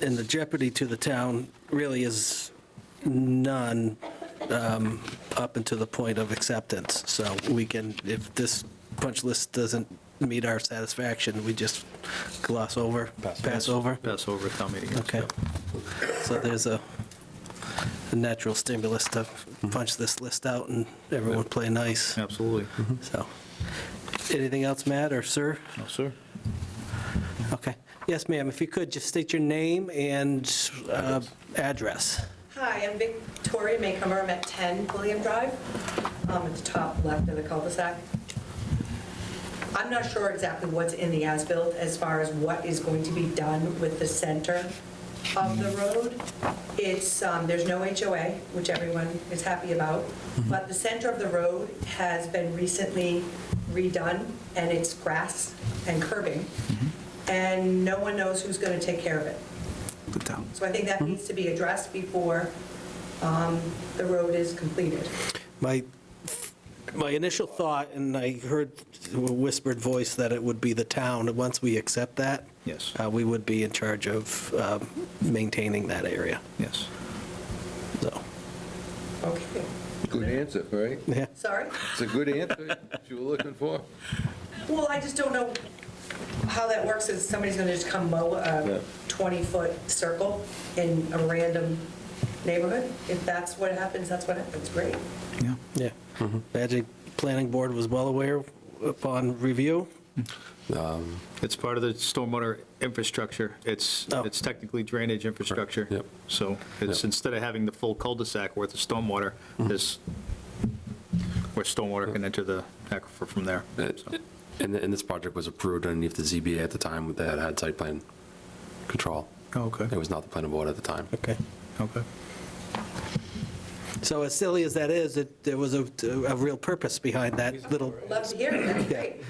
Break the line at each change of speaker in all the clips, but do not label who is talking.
and the jeopardy to the town really is none um, up until the point of acceptance. So we can, if this punch list doesn't meet our satisfaction, we just gloss over, pass over.
Pass over town meeting.
Okay. So there's a a natural stimulus to punch this list out and everyone play nice,
Absolutely.
so. Anything else, Matt or sir?
No, sir.
Okay. Yes, ma'am, if you could, just state your name and uh, address.
Hi, I'm Victoria Maycomer, I'm at 10 William Drive, um, at the top left of the cul-de-sac. I'm not sure exactly what's in the as-built as far as what is going to be done with the center of the road. It's, um, there's no HOA, which everyone is happy about, but the center of the road has been recently redone, and it's grass and curbing, and no one knows who's going to take care of it. So I think that needs to be addressed before um, the road is completed.
My, my initial thought, and I heard a whispered voice that it would be the town, once we accept that.
Yes.
uh, We would be in charge of um, maintaining that area,
Yes.
so,
Okay,
Good answer, right?
yeah.
sorry?
It's a good answer you were looking for.
Well, I just don't know how that works, is somebody's going to just come mow
Yeah.
a 20-foot circle in a random neighborhood? If that's what happens, that's what happens, great.
Yeah.
Yeah. Magic Planning Board was well aware upon review.
It's part of the stormwater infrastructure. It's,
Oh.
it's technically drainage infrastructure.
Yep.
So it's,
Yep. Mm-hmm.
instead of having the full cul-de-sac worth of stormwater, this, where stormwater can enter the aquifer from there.
Uh,
So,
And, and this project was approved underneath the ZBA at the time that had site plan control.
Oh, okay.
It was not the planning board at the time.
Okay.
Okay.
So as silly as that is, it, there was a, a real purpose behind that little,
Love to hear it, that's
Yeah.
great.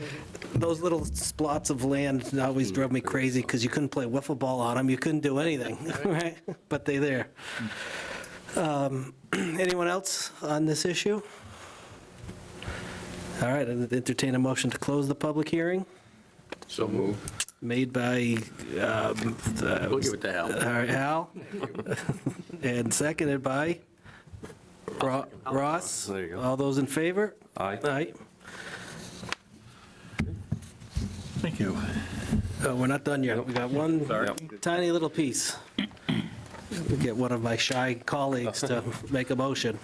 those little splots of land always drove me crazy because you couldn't play wiffle ball on them, you couldn't do anything, right? But they there. Um, Anyone else on this issue? All right, I'd entertain a motion to close the public hearing,
So move.
made by, um, the-
We'll give it to Hal.
All right, Al, and seconded by Ro- Ross.
There you go.
All those in favor?
Aye.
Aye.
Thank you.
Oh, We're not done yet. We got one tiny little piece. We'll Get one of my shy colleagues to make a motion.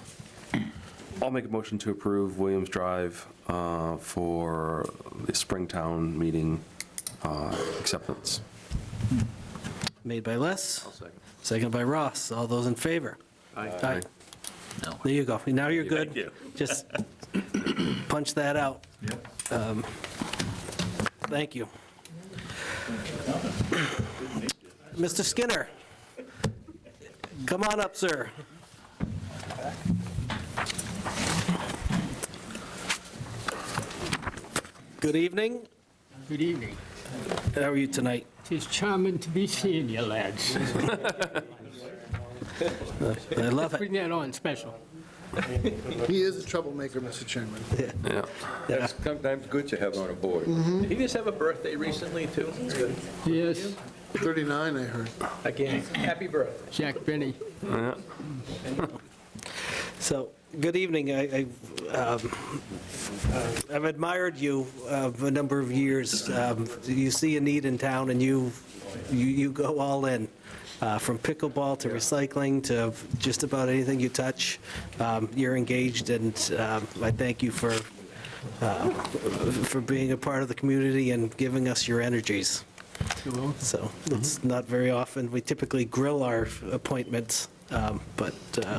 I'll make a motion to approve Williams Drive uh, for the Springtown meeting uh, acceptance.
Made by Les, seconded by Ross. All those in favor? Aye.
No.
There you go. Now you're
Thank
good.
you.
Just punch that out. Um, Thank you. Mr. Skinner, come on up, sir. Good evening.
Good evening.
How are you tonight?
Tis charming to be seeing you lads.
I love it.
Bring that on special.
He is a troublemaker, Mr. Chairman.
Yeah.
That's sometimes good to have on a board.
Did he just have a birthday recently, too?
Yes,
39, I heard.
Again, happy birthday.
Jack Benny.
So, good evening. I- I, um, I've admired you uh, a number of years. Um, You see a need in town, and you, you you go all in, uh, from pickleball to recycling to just about anything you touch. Um, You're engaged, and um, I thank you for, uh, for being a part of the community and giving us your energies. So it's not very often, we typically grill our appointments, um, but uh,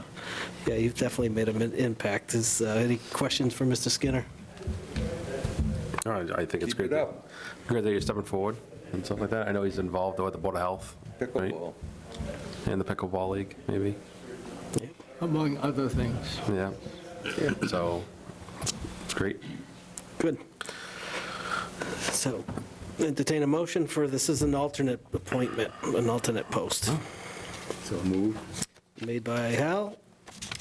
yeah, you've definitely made an impact. Is, uh, any questions for Mr. Skinner?
All right, I think it's
Keep it
great. that-
up.
Great that you're stepping forward and stuff like that. I know he's involved with the Board of Health. right?
Pickleball.
And the pickleball league, maybe.
among other things.
Yeah. So it's great.
Good. So entertain a motion for, this is an alternate appointment, an alternate post.
So move.
Made by Hal,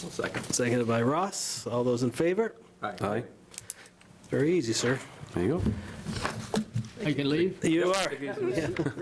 Second.
seconded by Ross. All those in favor?
Aye.
Very easy, sir.
There you go.
I can leave?
You are.